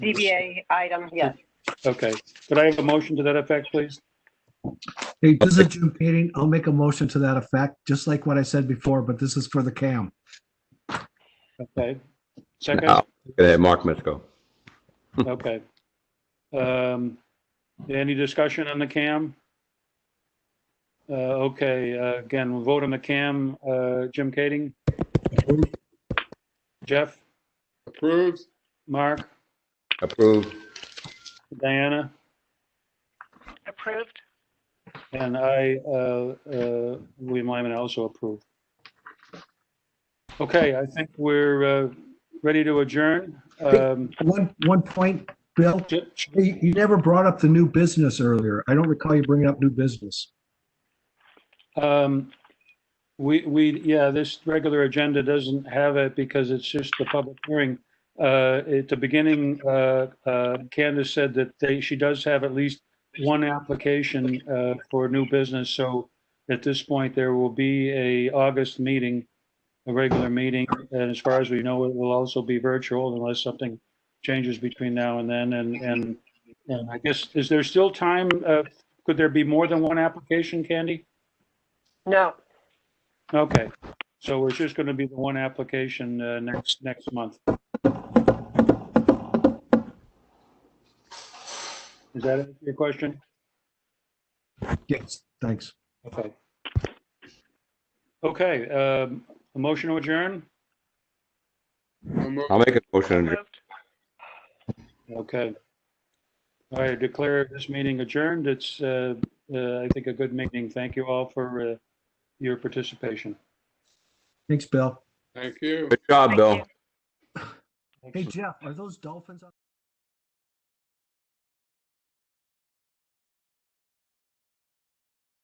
ZBA item, yes. Okay, could I have a motion to that effect, please? Hey, this is a June meeting. I'll make a motion to that effect, just like what I said before, but this is for the CAM. Okay, second, Now, look at that, Mark Mitchko. okay. Um, Any discussion on the CAM? Uh, Okay, uh, again, we'll vote on the CAM, Uh, Jim Kading? Jeff, Approved. Mark, Approved. Diana, Approved? and I, uh, uh, William Lyman, also approve. Okay, I think we're uh, ready to adjourn. Um, One, one point, Bill, Ju- you, you never brought up the new business earlier. I don't recall you bringing up new business. Um, we, we, yeah, this regular agenda doesn't have it because it's just the public hearing. Uh, at the beginning, uh, uh, Candace said that they, she does have at least one application, uh, for new business. So at this point, there will be a August meeting, a regular meeting. And as far as we know, it will also be virtual unless something changes between now and then. And, and, and I guess, is there still time? Uh, could there be more than one application, Candy? No, Okay, so it's just going to be the one application uh, next, next month. Is that answer your question? Yes, thanks. Okay. Okay, um, a motion to adjourn? I'll make a motion. to adjourn. approved. Okay. All right, declare this meeting adjourned. It's, uh, uh, I think, a good meeting. Thank you all for uh, your participation. Thanks, Bill. Thank you. Good job, Thank Bill. you. Hey, Jeff, are those dolphins? out-